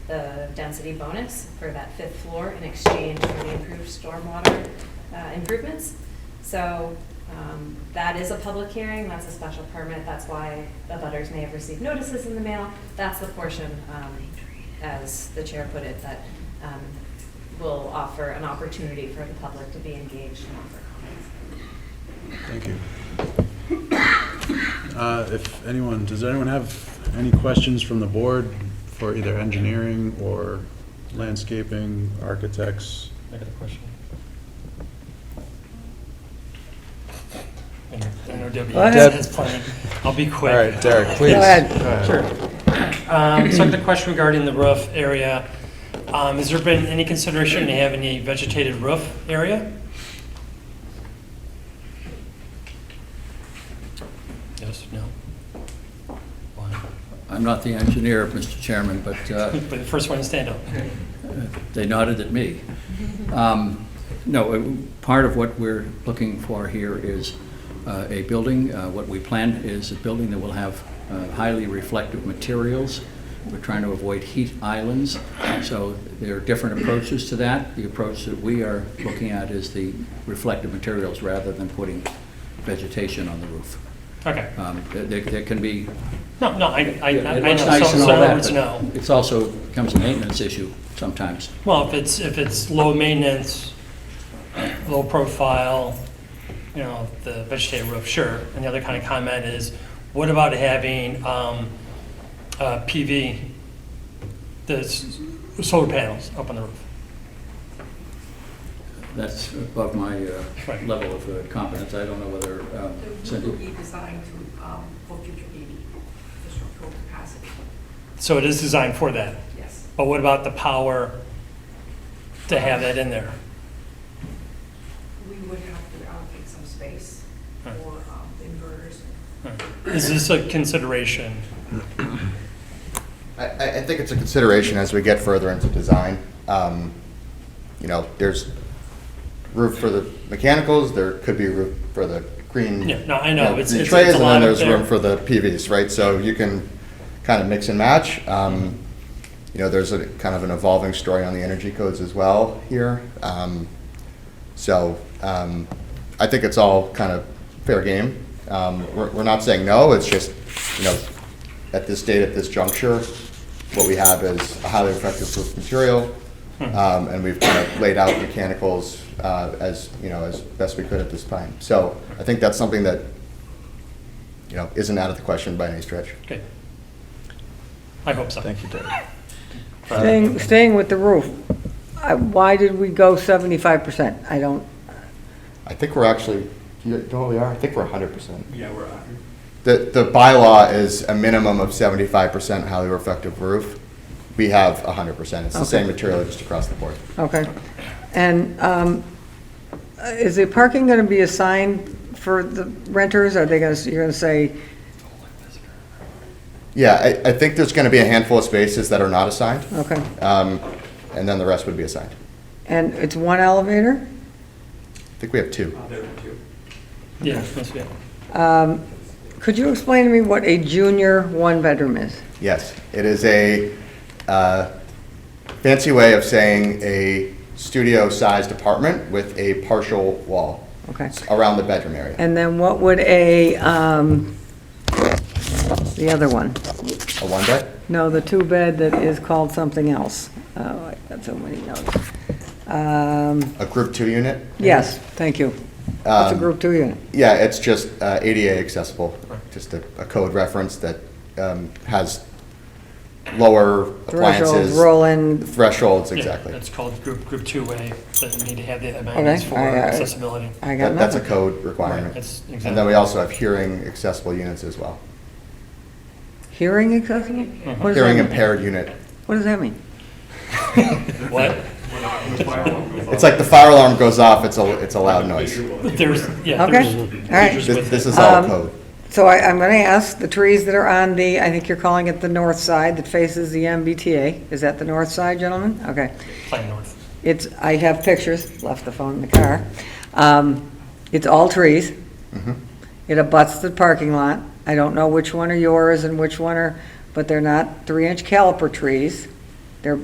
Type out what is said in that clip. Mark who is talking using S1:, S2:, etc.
S1: density bonus for that fifth floor in exchange for the improved stormwater uh, improvements. So um, that is a public hearing, that's a special permit, that's why the butters may have received notices in the mail. That's the portion, um, as the chair put it, that um, will offer an opportunity for the public to be engaged and offer comments.
S2: Thank you. Uh, If anyone, does anyone have any questions from the board for either engineering or landscaping, architects?
S3: I got a question. I know- I know Debbie
S4: Go ahead.
S3: has plenty. I'll be
S2: All
S3: quick.
S2: right, Derek, please.
S4: Go ahead.
S3: Sure. Um, So I have a question regarding the roof area. Um, Has there been any consideration to have any vegetated roof area? Yes, no? Why?
S5: I'm not the engineer, Mr. Chairman, but uh,
S3: But the first one to stand up.
S5: they nodded at me. Um, No, uh, part of what we're looking for here is uh, a building, uh, what we plan is a building that will have uh, highly reflective materials. We're trying to avoid heat islands, so there are different approaches to that. The approach that we are looking at is the reflective materials rather than putting vegetation on the roof.
S3: Okay.
S5: Um, there- There there can be
S3: No, no, I, I, I
S5: yeah, It
S3: know.
S5: looks nice
S3: So-
S5: and
S3: so
S5: all
S3: in other
S5: that,
S3: words, no.
S5: but it's also becomes a maintenance issue sometimes.
S3: Well, if it's, if it's low maintenance, low profile, you know, the vegetated roof, sure. And the other kind of comment is, what about having um, uh, PV, the s- solar panels up on the roof?
S5: That's above my uh,
S3: Right.
S5: level of uh, competence. I don't know whether um,
S6: It will
S5: Cindy,
S6: be designed to, um, for future EV, the structural capacity,
S3: So it is designed for that.
S6: yes.
S3: But what about the power to have that in there?
S6: We would have to allocate some space for
S3: Right.
S6: um, inverters.
S3: Is this a consideration?
S7: I- I, I think it's a consideration as we get further into design. Um, You know, there's roof for the mechanicals, there could be roof for the green.
S3: Yeah, no, I know.
S7: you
S3: It's-
S7: green
S3: it's-
S7: trays,
S3: it's a lot up
S7: And then
S3: there.
S7: there's room for the PVs, right? So you can kind of mix and match. Um, You know, there's a kind of an evolving story on the energy codes as well here. Um, So um, I think it's all kind of fair game. Um, We're we're not saying no, it's just, you know, at this date, at this juncture, what we have is a highly reflective roof material,
S8: Hmm.
S7: um, and we've kind of laid out mechanicals uh, as, you know, as best we could at this time. So I think that's something that, you know, isn't out of the question by any stretch.
S3: Okay. I hope so.
S2: Thank you, Derek.
S4: Staying, staying with the roof, I- why did we go seventy-five percent? I don't,
S7: I think we're actually, you know what we are? I think we're 100%.
S8: Yeah, we're on.
S7: The, the bylaw is a minimum of 75% highly reflective roof. We have 100%. It's the same
S4: Okay.
S7: material just across the board.
S4: okay. And, um, is the parking gonna be assigned for the renters? Are they gonna, you're gonna say,
S7: Yeah, I, I think there's going to be a handful of spaces that are not assigned,
S4: okay,
S7: um, and then the rest would be assigned.
S4: and it's one elevator?
S7: I think we have two.
S8: There were two.
S3: Yeah, that's- yeah.
S4: Could you explain to me what a junior one-bedroom is?
S7: Yes, it is a uh, fancy way of saying a studio-sized apartment with a partial wall
S4: Okay.
S7: around the bedroom area.
S4: And then what would a, um, the other one?
S7: A one-bed?
S4: No, the two-bed that is called something else. Oh, I got so many notes. Um,
S7: A group two unit? Um,
S4: yes, thank you. That's a group two unit.
S7: Yeah, it's just uh, ADA accessible, just a a code reference that um, has lower
S4: Thresholds,
S7: appliances.
S4: roll-in,
S7: Thresholds,
S3: Yeah,
S7: exactly.
S3: It's called group, group two-way, that you need to have the amenities for
S4: I- I-
S3: accessibility.
S4: I got
S7: That- That's a
S4: nothing.
S7: code requirement.
S3: That's
S7: And then
S3: exactly,
S7: we also have hearing accessible units as well.
S4: Hearing accessible? What does that
S7: Uh-huh. Hearing
S4: mean?
S7: impaired unit.
S4: What does that mean?
S3: what?
S7: It's like the fire alarm goes off, it's a, it's a loud noise.
S3: There's, yeah.
S4: Okay,
S3: there's-
S4: all right.
S3: there's
S7: This
S3: with
S7: this
S3: it.
S7: is all
S4: Um,
S7: code.
S4: So I, I'm gonna ask, the trees that are on the, I think you're calling it the north side that faces the MBTA, is that the north side, gentlemen? Okay.
S3: Plan north.
S4: It's, I have pictures, left the phone in the car. Um, It's all trees.
S7: Mm-hmm.
S4: It abuts the parking lot. I don't know which one are yours and which one are, but they're not three-inch caliper trees.